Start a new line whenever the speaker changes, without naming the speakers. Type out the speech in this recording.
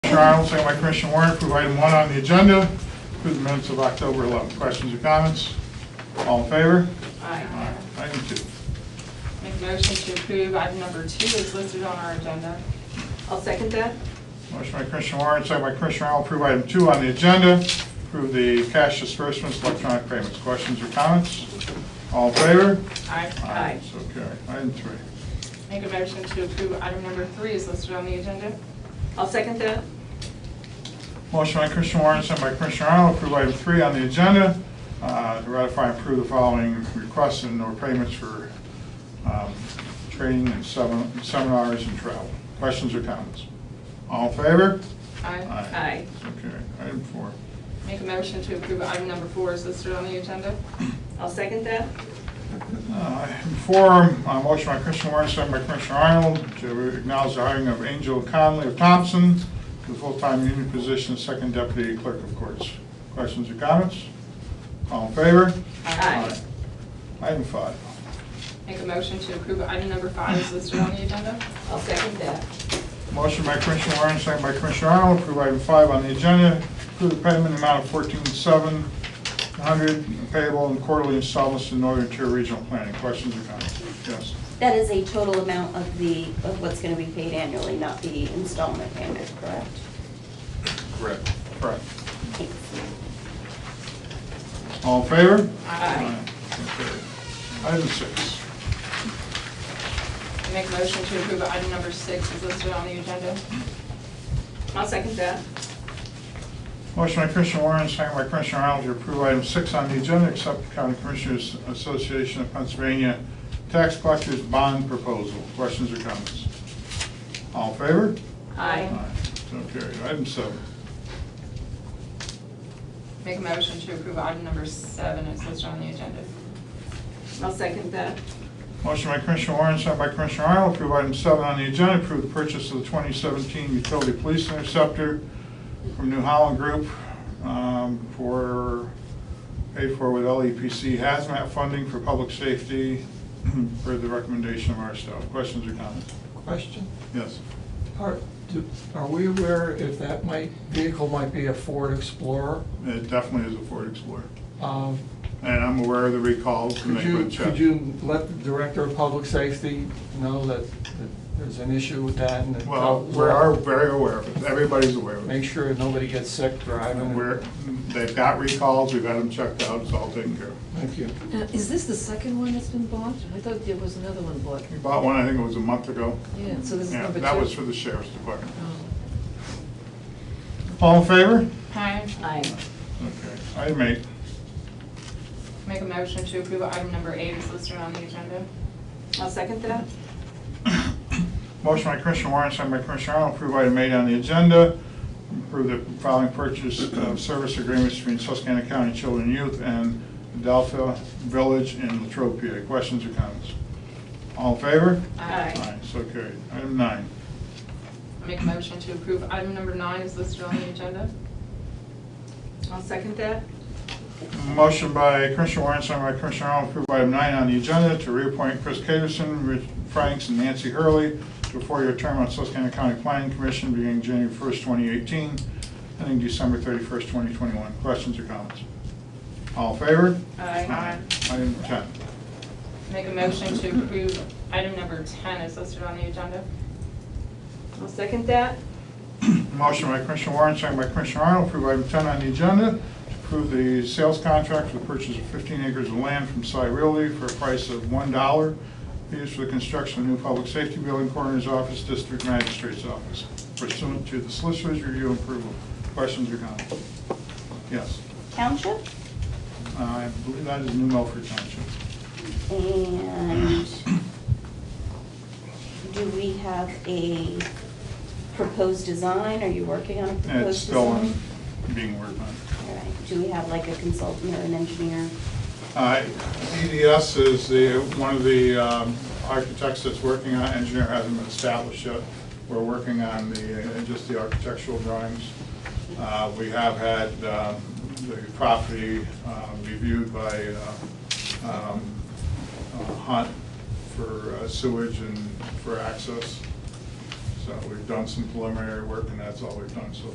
Commissioner Arnold, second by Commissioner Warren, approve item one on the agenda, approve the minutes of October 11th. Questions or comments? All in favor?
Aye.
Item two.
Make a motion to approve item number two is listed on our agenda.
I'll second that.
Motion by Commissioner Warren, second by Commissioner Arnold, approve item two on the agenda, approve the cash disbursements, electronic payments. Questions or comments? All in favor?
Aye.
Aye.
So carried. Item three.
Make a motion to approve item number three is listed on the agenda.
I'll second that.
Motion by Commissioner Warren, sent by Commissioner Arnold, approve item three on the agenda, uh, to ratify and approve the following requests and or payments for um, training and semin- seminars and travel. Questions or comments? All in favor?
Aye.
Aye.
So carried. Item four.
Make a motion to approve item number four is listed on the agenda.
I'll second that.
Uh, Item four, uh, motion by Commissioner Warren, sent by Commissioner Arnold, to acknowledge the hiring of Angel Conley of Thompson to the full-time union position, of second deputy clerk of courts. Questions or comments? All in favor?
Aye.
Item five.
Make a motion to approve item number five is listed on the agenda.
I'll second that.
Motion by Commissioner Warren, second by Commissioner Arnold, approve item five on the agenda, approve the payment amount of fourteen seven hundred payable in quarterly installments to Northern Tier Regional Planning. Questions or comments? Yes.
That is a total amount of the, of what's gonna be paid annually, not the installment payment, correct?
Correct.
Correct.
Thanks.
All in favor?
Aye.
Aye. Item six.
Make a motion to approve item number six is listed on the agenda.
I'll second that.
Motion by Commissioner Warren, second by Commissioner Arnold, to approve item six on the agenda, accept the County Commissioners Association of Pennsylvania Tax Collectors Bond Proposal. Questions or comments? All in favor?
Aye.
So carried. Item seven.
Make a motion to approve item number seven is listed on the agenda.
I'll second that.
Motion by Commissioner Warren, second by Commissioner Arnold, approve item seven on the agenda, approve the purchase of the 2017 utility police interceptor from New Holland Group um, for, paid for with LEPC hazmat funding for public safety per the recommendation of our staff. Questions or comments?
Question,
Yes.
are, do- are we aware if that might, vehicle might be a Ford Explorer?
It definitely is a Ford Explorer.
Um,
And I'm aware of the recalls and
Could
they
you,
would check.
could you let the Director of Public Safety know that, that there's an issue with that and that?
Well, we are very aware of it. Everybody's aware of it.
Make sure nobody gets sick driving.
We're, they've got recalls, we've had them checked out, it's all taken care of.
Thank you.
Now, is this the second one that's been bought? I thought there was another one bought.
We bought one, I think it was a month ago.
Yeah, so this is
Yeah,
number two.
that was for the sheriff's department.
Oh.
All in favor?
Aye.
Aye.
Okay. Item eight.
Make a motion to approve item number eight is listed on the agenda.
I'll second that.
Motion by Commissioner Warren, signed by Commissioner Arnold, approve item eight on the agenda. Approve the following purchase of service agreements between Susquehanna County Children and Youth and Adelphia Village in Latrobe. PA. Questions or comments? All in favor?
Aye.
So carried. Item nine.
Make a motion to approve item number nine is listed on the agenda.
I'll second that.
Motion by Commissioner Warren, second by Commissioner Arnold, approve item nine on the agenda to reappoint Chris Caterson, Rich Franks, and Nancy Hurley to a four-year term on Susquehanna County Planning Commission beginning January 1st, 2018, ending December 31st, 2021. Questions or comments? All in favor?
Aye.
Item 10.
Make a motion to approve item number 10 is listed on the agenda.
I'll second that.
Motion by Commissioner Warren, second by Commissioner Arnold, approve item 10 on the agenda, to approve the sales contract for the purchase of 15 acres of land from Cy Realty for a price of $1, used for the construction of new public safety building, coroner's office, district magistrate's office, pursuant to the solicitor's review and approval. Questions or comments? Yes.
Township,
I believe that is New Milford Township.
and do we have a proposed design? Are you working on a
And it's
proposed
still
design?
being worked on.
All right. Do we have like a consultant or an engineer?
Uh, EDS is the, one of the um, architects that's working on, it. engineer hasn't been established yet. We're working on the, uh, just the architectural drawings. Uh, We have had um, the property uh, reviewed by uh, um, uh, Hunt for uh, sewage and for access. So we've done some preliminary work, and that's all we've done so